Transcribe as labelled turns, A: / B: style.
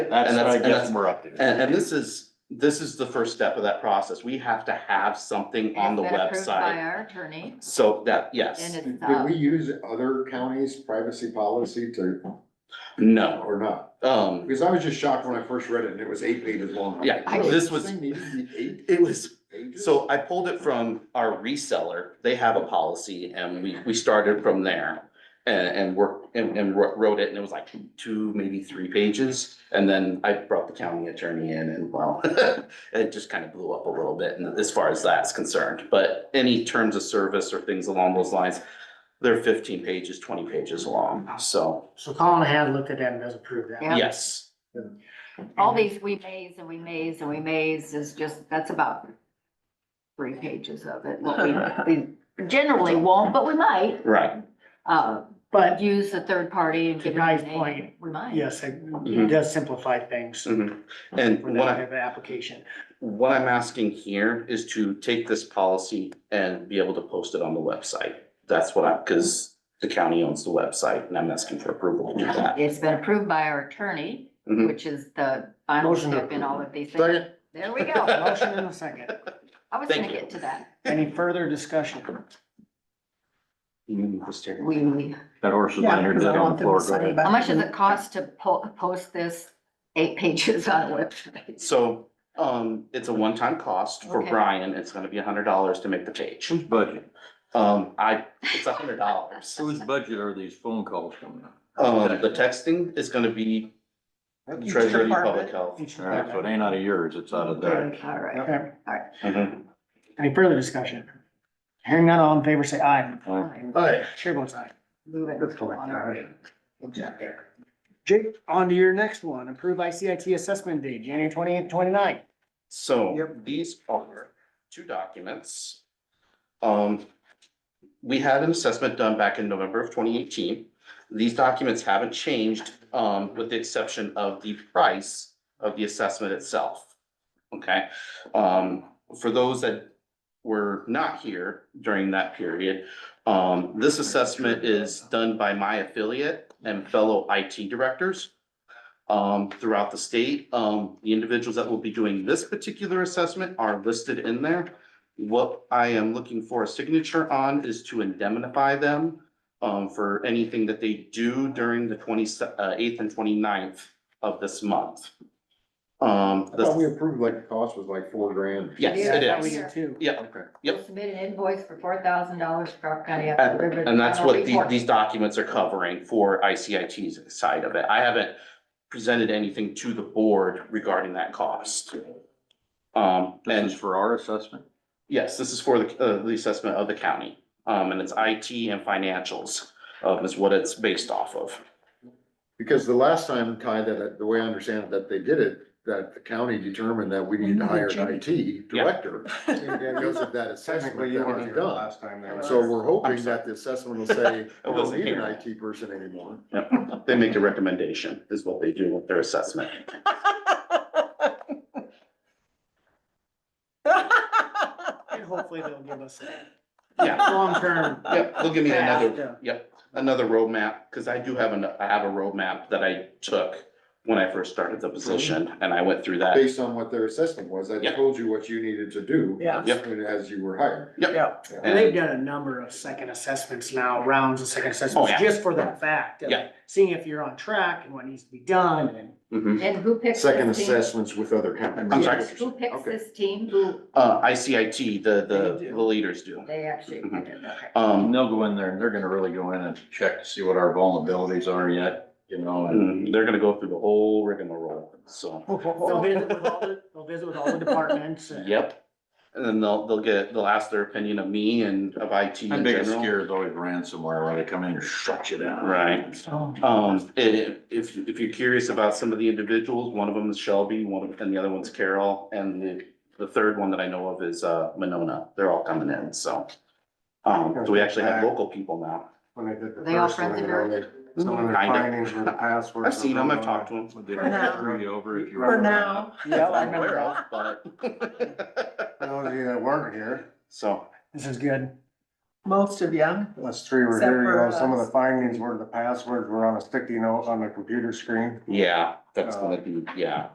A: That's
B: And
A: what I
B: that's- and
A: get
B: that's-
A: from our update.
B: And, and this is, this is the first step of that process. We have to have something on the
C: It's been approved By
B: website.
C: our attorney
B: So that,
C: and
B: yes,
C: it's,
D: Did
C: uh,
D: we use other counties' privacy policy to,
B: no,
D: or not?
B: um,
D: Because I was just shocked when I first read it and it was eight pages long. I'm
B: Yeah,
D: like, really?
B: this was-
D: thing needed to be eight
B: it was,
D: pages?
B: so I pulled it from our reseller. They have a policy and we, we started from there. And, and worked, and, and wr- wrote it and it was like two, maybe three pages. And then I brought the county attorney in and well, it just kind of blew up a little bit and as far as that's concerned. But any terms of service or things along those lines, they're fifteen pages, twenty pages long, so,
E: So Colin had looked at that and does approve that.
C: Yeah.
B: yes.
C: all these we maze and we maze and we maze is just, that's about three pages of it. What we, we generally won't, but we might,
B: Right,
C: uh,
E: But
C: use a third party and
E: To
C: give them a
E: Guy's
C: name.
E: point,
C: We might.
E: yes, it
B: Mm-hmm.
E: it does simplify things for
B: mhm. and
E: that
B: what I,
E: type of application.
B: what I'm asking here is to take this policy and be able to post it on the website. That's what I, because the county owns the website and I'm asking for approval to do that.
C: It's been approved by our attorney,
B: Mhm.
C: which is the final
E: Motion to
C: step in all of these things.
D: Second,
C: There we go.
E: Motion and a second.
C: I was
B: Thank
C: gonna
B: you.
C: get to that.
E: Any further discussion?
B: Mm, just here.
C: We,
A: That horse is laying here dead on the floor. Go ahead.
C: how much does it cost to po- post this eight pages on a website?
B: So, um, it's a one-time cost for
C: Okay.
B: Brian. It's gonna be a hundred dollars to make the page.
A: Whose budget,
B: Um, I, it's a hundred dollars.
A: whose budget are these phone calls coming up?
B: Um, the texting is gonna be the treasurer of public health.
E: Each
A: All right, so it
E: department.
A: ain't out of yours, it's out of theirs.
C: All right.
E: Okay.
B: Mhm.
E: Any further discussion? Hearing none, all in favor, say aye.
A: All right.
C: fine.
D: aye.
E: Chair votes aye.
C: Move it
E: That's fine.
C: on our agenda.
E: Jake, on to your next one. Approve ICIT assessment date, January twenty-eighth, twenty-ninth.
B: So
E: Yep.
B: these are two documents. Um, we had an assessment done back in November of twenty eighteen. These documents haven't changed, um, with the exception of the price of the assessment itself. Okay, um, for those that were not here during that period, um, this assessment is done by my affiliate and fellow IT directors um, throughout the state. Um, the individuals that will be doing this particular assessment are listed in there. What I am looking for a signature on is to indemnify them um, for anything that they do during the twenty uh, eighth and 29th of this month. Um,
D: I
B: the-
D: thought we approved like the cost was like four grand.
B: yes,
C: Yeah,
B: it
C: that
B: is.
C: was-
E: Too.
B: Yeah, Yep.
C: We'll Submit an invoice for four thousand dollars for our county.
B: and, and that's what the, these documents are covering for ICIT's side of it. I haven't presented anything to the board regarding that cost. Um, and
A: This is for our assessment?
B: Yes, this is for the, uh, the assessment of the county, um, and it's IT and financials, um, is what it's based off of.
D: Because the last time, Ty, that, the way I understand it, that they did it, that the county determined that we needed to hire an IT director. Because of that assessment
F: Technically, you
D: that
F: weren't
D: was
F: here the
D: done.
F: last time they were.
D: So we're
B: I'm
D: hoping
B: sorry.
D: that the assessment will say,
B: I
D: we don't
B: wasn't
D: need an
B: here.
D: IT person anymore.
B: Yep, They make a recommendation is what they do with their assessment.
E: And hopefully they'll give us a
B: Yeah,
E: long-term.
B: yep, they'll give me
E: path
B: another,
E: to-
B: yep, another roadmap, because I do have an, I have a roadmap that I took when I first started the position, and I went through that.
D: Based on what their assessment was, I
B: Yeah.
D: told you what you needed to do.
E: Yeah.
B: Yep.
D: As you were hired.
E: Yeah, and they've done a number of second assessments now, rounds of second assessments,
B: Oh, yeah.
E: just for that fact. of
B: Yeah.
E: Seeing if you're on track and what needs to be done and
B: Mhm.
C: And who picks?
D: Second
C: this team?
D: assessments with other counties.
B: I'm sorry?
C: Who picks
D: Okay.
C: this team? Who,
B: Uh, ICIT, the,
E: They
B: the,
E: do.
B: the leaders do.
C: they actually,
B: Mhm.
C: okay.
B: Um,
A: And they'll go in there and they're gonna really go in and check to see what our vulnerabilities are yet, you know, and
B: mm, they're gonna go through the whole rigmarole, so.
E: they'll visit with all the, they'll visit with all the departments. and-
B: Yep. And then they'll, they'll get, they'll ask their opinion of me and of IT
A: my
B: in
A: biggest
B: general.
A: scare is always ransomware, where they come in and shut you down.
B: Right.
E: Oh.
B: Um, i- if, if you're curious about some of the individuals, one of them is Shelby, one of, and the other one's Carol, and the, the third one that I know of is, uh, Monona. They're all coming in, so. Um, so we actually have local people now.
F: When they did the
C: They all
F: first one,
C: friends
F: you
C: of
F: know, they, some of their
B: Kinda.
F: findings were the passwords.
B: I've seen
F: were
B: them, I've
F: wrong.
B: talked to them.
A: Would they
F: For now.
A: screw you over if you
F: For
A: were-
F: now.
E: Yeah, I
B: I'm aware
E: remember.
B: of, but,
F: For Those of you that weren't here,
B: so,
E: This is good.
F: most of you.
D: Us three were
F: Except
D: here, you
F: for
D: know, some of
F: us.
D: the findings were the passwords were on a sticky note on the computer screen.
B: Yeah, that's gonna be, yeah.